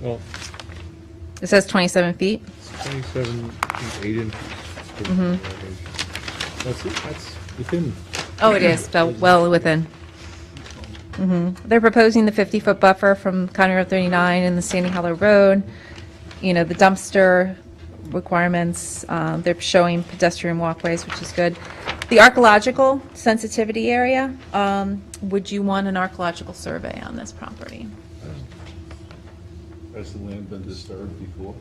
Well, It says 27 feet. it's 27 feet, 8 inches. Mm-hmm. That's, it. that's within, Oh, it is, so well within. Mhm. They're proposing the 50-foot buffer from County Road 39 and the Sandy Hollow Road, you know, the dumpster requirements, um, they're showing pedestrian walkways, which is good. The archaeological sensitivity area, um, would you want an archaeological survey on this property? Has the land been disturbed before?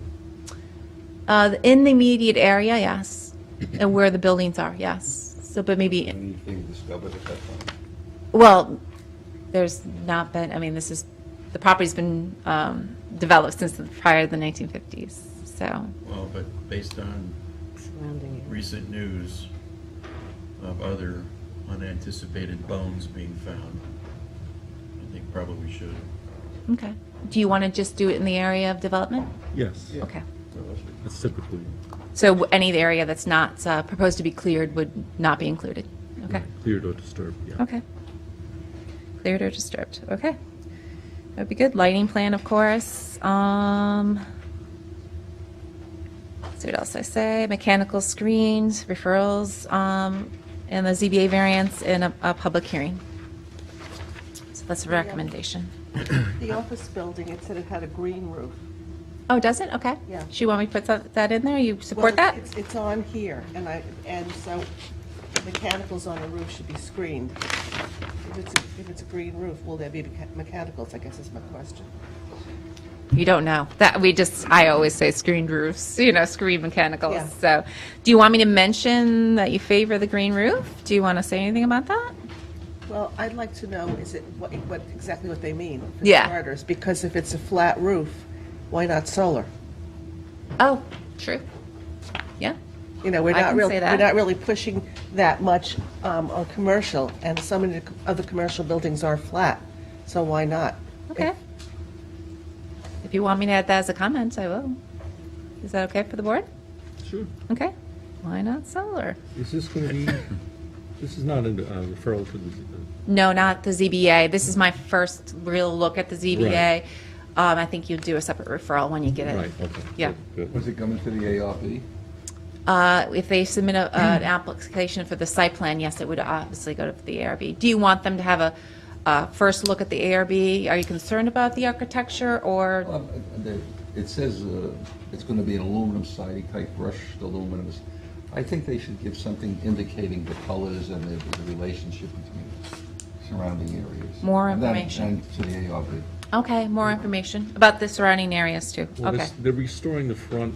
Uh, In the immediate area, yes, and where the buildings are, yes. So, but maybe Anything discovered at that time? Well, there's not been, I mean, this is, the property's been um, developed since the- prior to the 1950s, so, Well, but based on recent news of other unanticipated bones being found, I think probably we should. okay. Do you want to just do it in the area of development? yes, Okay. that's typically, So w- any area that's not uh, proposed to be cleared would not be included? Okay, cleared or disturbed, yeah. okay. Cleared or disturbed, okay. That'd be good. Lighting plan, of course. Um, See what else I say, mechanical screens, referrals, um, and the ZBA variance in a, a public hearing. So that's a recommendation. The office building, it said it had a green roof. Oh, does it? Okay. Yeah. Do you want me to put that, that in there? You Well, support that? It's, it's on here, and I, and so mechanicals on a roof should be screened. If it's, if it's a green roof, will there be mecha- mechanicals, I guess is my question. You don't know. That, we just, I always say screened roofs, you know, screen Yeah. mechanicals. So, do you want me to mention that you favor the green roof? Do you want to say anything about that? Well, I'd like to know, is it, what, what, exactly what they mean, for Yeah. starters, because if it's a flat roof, why not solar? Oh, true. Yeah. You know, we're I not can really, say we're that. not really pushing that much um, on commercial, and so many of the commercial buildings are flat, so why not? Okay. If you want me to add that as a comment, I will. Is that okay for the board? Sure. Okay. Why not solar? Is this going to be, this is not a uh, referral to the, z- No, not the ZBA. This is my first real look at the ZBA. Um, I think you do a separate referral when you get uh, it. right, okay. Yeah. good, good. Was it coming to the ARB? Uh, if they submit Hmm. a, an application for the site plan, yes, it would obviously go to the ARB. Do you want them to have a, a first look at the ARB? Are you concerned about the architecture or? Um, uh, the- It says uh, it's going to be an aluminum siding type brushed aluminum. I think they should give something indicating the colors and the the relationship between surrounding areas. More And that- information. And to the ARB. Okay, more information about the surrounding areas too. Well, Okay. this- They're restoring the front,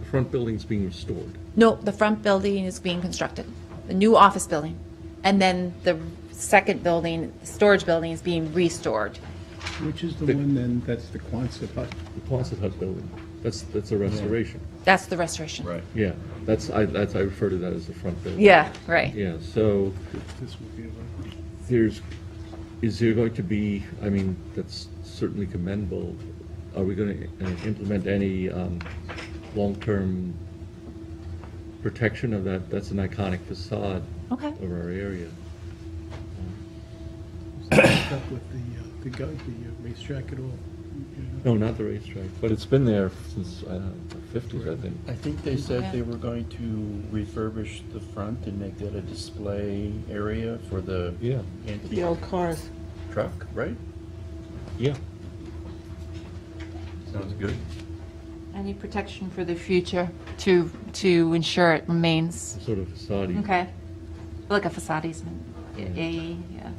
the front building's being restored. No, the front building is being constructed, the new office building. And then the second building, the storage building is being restored. Which is the one then, that's the Quonset hut? The Quonset Hut building, that's, that's a restoration. That's the restoration. Yeah, that's, I, that's, I refer to that as the front building. Yeah, right. Yeah, so This would be the- there's, is there going to be, I mean, that's certainly commendable. Are we going to implement any um, long-term protection of that? That's an iconic facade Okay. of our area. up with the, uh, the guy, the uh, racetrack at all. you know. No, not the racetrack, but it's been there since, I don't know, the 50s, I think. I think they Yeah. said they were going to refurbish the front and make that a display area for the Yeah, The antique old cars. truck, right? yeah. Sounds good. Any protection for the future to, to ensure it remains Sort of facade. Okay. Like a facade easement. Yeah, yeah, yeah, yeah.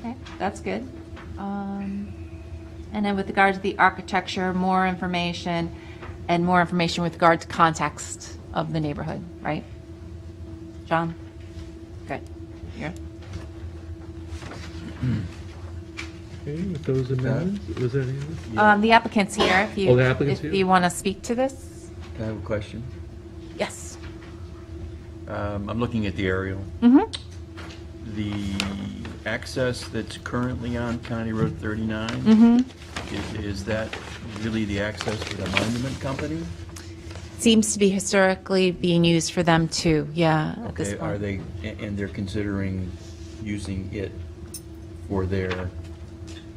Okay, that's good. Um, And then with regard to the architecture, more information, and more information with regard to context of the neighborhood, right? John? Good. Yeah. Okay, with those amendments, was there any other? Um, The applicant's here, if you. Oh, the applicant's If here? you want to speak to this? Can I have a question? Yes. Um, I'm looking at the aerial. Mhm. The access that's currently on County Road 39? Is, is that really the access for the monument company? Seems to be historically being used for them too, yeah, at this Okay, point. are they, a- and they're considering using it for their